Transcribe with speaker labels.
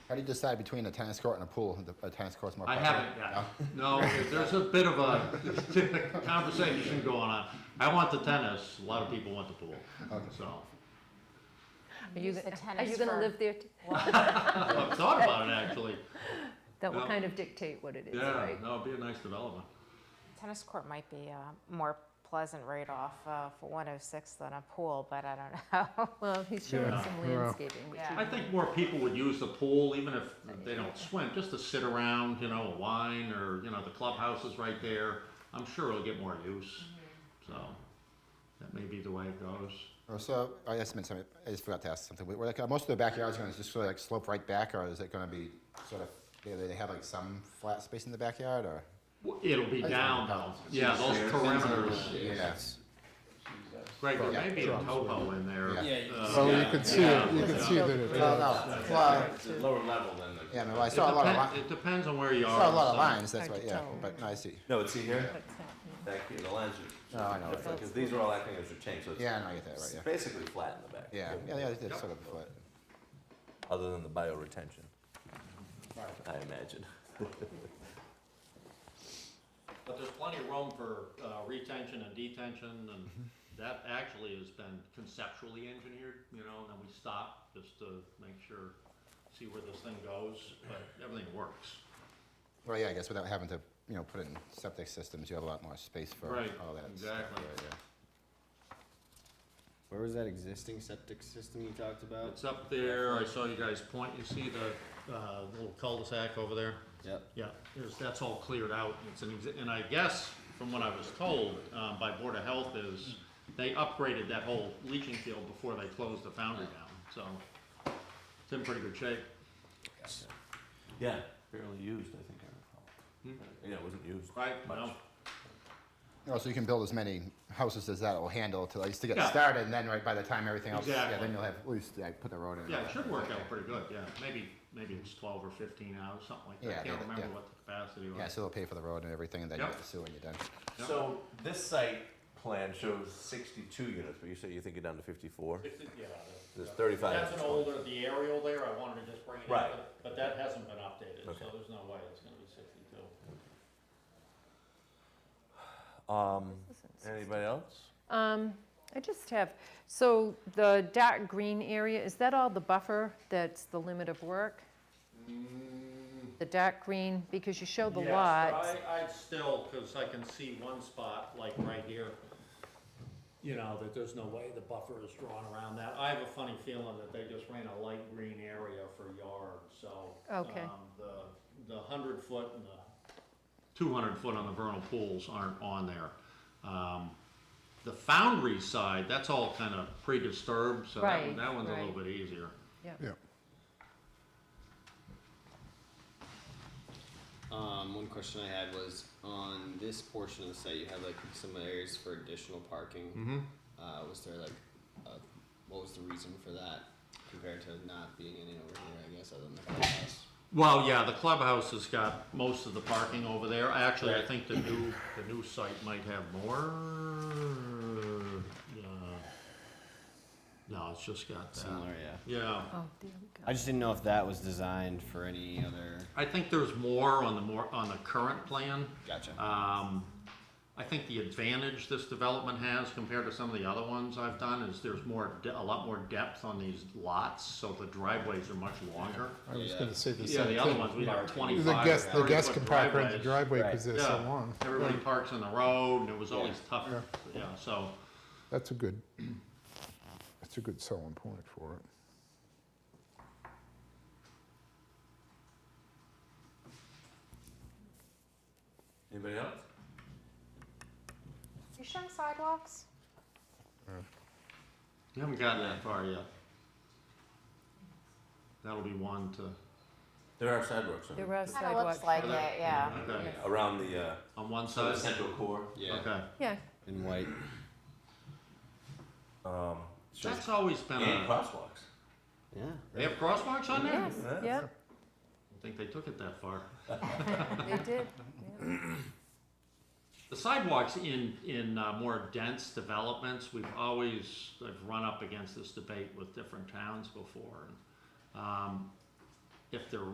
Speaker 1: How do you decide between a tennis court and a pool? The- A tennis court's more.
Speaker 2: I
Speaker 1: practical.
Speaker 2: haven't yet. No, there's a bit of a conversation going on. I want the tennis, a lot of people want the pool, so.
Speaker 3: Are you,
Speaker 4: Use the
Speaker 3: gonna- are
Speaker 4: tennis
Speaker 3: you gonna
Speaker 4: for-
Speaker 3: live there? t-
Speaker 2: I've thought about it, actually.
Speaker 3: That will
Speaker 2: No.
Speaker 3: kind of dictate what it is,
Speaker 2: Yeah,
Speaker 3: right?
Speaker 2: no, it'd be a nice development.
Speaker 4: Tennis court might be a more pleasant trade-off uh, for 106 than a pool, but I don't know.
Speaker 3: Well, he's showing
Speaker 5: Yeah,
Speaker 3: some
Speaker 5: yeah.
Speaker 3: landscaping, which
Speaker 4: Yeah.
Speaker 2: I think more people would use the pool, even if they don't swim, just to sit around, you know, a wine or, you know, the clubhouse is right there. I'm sure it'll get more use, so that may be the way it goes.
Speaker 1: Or Oh, So I just meant something. I just forgot to ask something. We're like uh, most of the backyards going to just sort of like slope right back, or is it going to be sort of? They, they have like some flat space in the backyard, or
Speaker 2: W- It'll be
Speaker 1: That's
Speaker 2: down though,
Speaker 1: about it.
Speaker 2: yeah, those
Speaker 6: Stairs, things like that.
Speaker 2: perimeters.
Speaker 1: Yes.
Speaker 2: Greg, there may be a
Speaker 5: Drums.
Speaker 2: topo in there.
Speaker 1: Yeah.
Speaker 6: Yeah, you
Speaker 2: uh,
Speaker 5: So you
Speaker 6: Yeah.
Speaker 5: could see, it. you could see that
Speaker 1: No,
Speaker 5: it,
Speaker 1: no. Well,
Speaker 6: It's a lower level than the.
Speaker 1: yeah, no. I
Speaker 2: It
Speaker 1: saw a lot of
Speaker 2: depen-
Speaker 1: li-
Speaker 2: It depends on where you are.
Speaker 1: saw a lot of
Speaker 2: so-
Speaker 1: lines. That's
Speaker 3: Hard
Speaker 1: why.
Speaker 3: to
Speaker 1: Yeah,
Speaker 3: tell.
Speaker 1: but no, I see.
Speaker 6: No, it's see here,
Speaker 3: what's happening.
Speaker 6: back here, the lines
Speaker 1: No, I know.
Speaker 6: are different, because these are all acting as a change, so
Speaker 1: Yeah, no, I get that
Speaker 6: it's
Speaker 1: right.
Speaker 6: basically flat in the back.
Speaker 1: Yeah, yeah, yeah. yeah it's sort of flat.
Speaker 6: Other than the bioretention, I imagine.
Speaker 2: But there's plenty of room for uh, retention and detention, and
Speaker 1: Mm-hmm.
Speaker 2: that actually has been conceptually engineered, you know, and then we stop just to make sure, see where this thing goes, but everything works.
Speaker 1: Well, yeah, I guess without having to, you know, put it in septic systems, you have a lot more space for
Speaker 2: Right,
Speaker 1: all that. stuff,
Speaker 2: exactly.
Speaker 1: right, yeah.
Speaker 7: Where was that existing septic system you talked about?
Speaker 2: It's up there, I saw you guys point, you see the uh, little cul-de-sac over there?
Speaker 7: Yep.
Speaker 2: Yeah, there's, that's all cleared out, it's an, exi- and I guess, from what I was told, um, by Board of Health is, they upgraded that whole leaching field before they closed the foundry down, so it's in pretty good shape.
Speaker 6: Yeah, barely used, I think I recall. Hmm? Yeah, it wasn't used.
Speaker 2: Right,
Speaker 6: much.
Speaker 2: no,
Speaker 1: Oh, so you can build as many houses as that will handle to, like, to get
Speaker 2: Yeah.
Speaker 1: started, and then right by the time everything else, yeah,
Speaker 2: Exactly.
Speaker 1: then you'll have, at least, like, put the road in. and
Speaker 2: yeah,
Speaker 1: all
Speaker 2: it
Speaker 1: that.
Speaker 2: should work out pretty good, yeah, maybe, maybe it's twelve or fifteen hours, something like that,
Speaker 1: Yeah,
Speaker 2: I can't
Speaker 1: yeah,
Speaker 2: remember
Speaker 1: yeah.
Speaker 2: what the capacity was.
Speaker 1: Yeah, so they'll pay for the road and everything, and then you
Speaker 2: Yep.
Speaker 1: get the sewer and you're done.
Speaker 2: Yep.
Speaker 6: So this site plan shows sixty-two units, but you say you think you're down to fifty-four?
Speaker 2: It's- yeah, the-
Speaker 6: There's thirty-five.
Speaker 2: That's an
Speaker 6: units.
Speaker 2: older, the aerial there, I wanted to just bring it
Speaker 6: Right.
Speaker 2: up, but- but that hasn't been updated, so
Speaker 6: Okay.
Speaker 2: there's no way it's gonna be sixty-two.
Speaker 6: Um, anybody else?
Speaker 3: Um, I just have, so the dark green area, is that all the buffer that's the limit of work? The dark green, because you show the lots.
Speaker 2: I, I'd still, cause I can see one spot, like right here, you know, that there's no way the buffer is drawn around that. I have a funny feeling that they just ran a light green area for yards, so.
Speaker 3: Okay.
Speaker 2: um, The, the hundred foot and the two hundred foot on the vernal pools aren't on there. Um, The foundry side, that's all kind of pre-disturbed, so that one,
Speaker 3: Right,
Speaker 2: that one's a little
Speaker 3: right.
Speaker 2: bit easier.
Speaker 5: yeah.
Speaker 7: Um, one question I had was on this portion of the site, you have like some areas for additional parking. Uh, was there like, uh, what was the reason for that compared to not being any over here, I guess, other than the clubhouse?
Speaker 2: Well, yeah, the clubhouse has got most of the parking over there. Actually, I think the new, the new site might have more. uh, No, it's just got that.
Speaker 7: Similar, yeah.
Speaker 2: Yeah,
Speaker 3: Oh, there we go.
Speaker 7: I just didn't know if that was designed for any other.
Speaker 2: I think there's more on the more, on the current plan.
Speaker 7: Gotcha.
Speaker 2: Um, I think the advantage this development has compared to some of the other ones I've done is there's more, de- a lot more depth on these lots, so the driveways are much longer.
Speaker 5: I was gonna say the
Speaker 2: Yeah,
Speaker 5: same
Speaker 2: the other
Speaker 5: thing.
Speaker 2: ones, we have twenty-five.
Speaker 5: The guests, the
Speaker 2: 30
Speaker 5: guests
Speaker 2: foot
Speaker 5: can park right in the
Speaker 2: driveways.
Speaker 5: driveway because they're so
Speaker 2: Yeah,
Speaker 5: long.
Speaker 2: Everybody parks on the road, and it was always
Speaker 7: Yeah.
Speaker 2: tough,
Speaker 5: Yeah.
Speaker 2: yeah, so,
Speaker 5: That's a good, that's a good selling point for it.
Speaker 6: Anybody else?
Speaker 4: You showing sidewalks?
Speaker 2: you haven't gotten that far yet. That'll be one to,
Speaker 6: There are sidewalks on,
Speaker 3: There are
Speaker 4: Kind of looks
Speaker 3: sidewalks.
Speaker 4: like it,
Speaker 2: Sidewalks.
Speaker 4: yeah.
Speaker 2: okay,
Speaker 6: around the, uh,
Speaker 2: on one
Speaker 6: so the
Speaker 2: side,
Speaker 6: central core.
Speaker 7: Yeah,
Speaker 2: okay.
Speaker 3: Yeah,
Speaker 7: in white.
Speaker 6: Um, it's just-
Speaker 2: That's always been
Speaker 6: and
Speaker 2: a,
Speaker 6: crosswalks.
Speaker 7: Yeah.
Speaker 2: they have crosswalks on there? I
Speaker 3: yes,
Speaker 6: Yeah.
Speaker 3: yeah,
Speaker 2: don't think they took it that far.
Speaker 3: they did. yeah.
Speaker 2: The sidewalks in, in uh, more dense developments, we've always, I've run up against this debate with different towns before. Um, if they're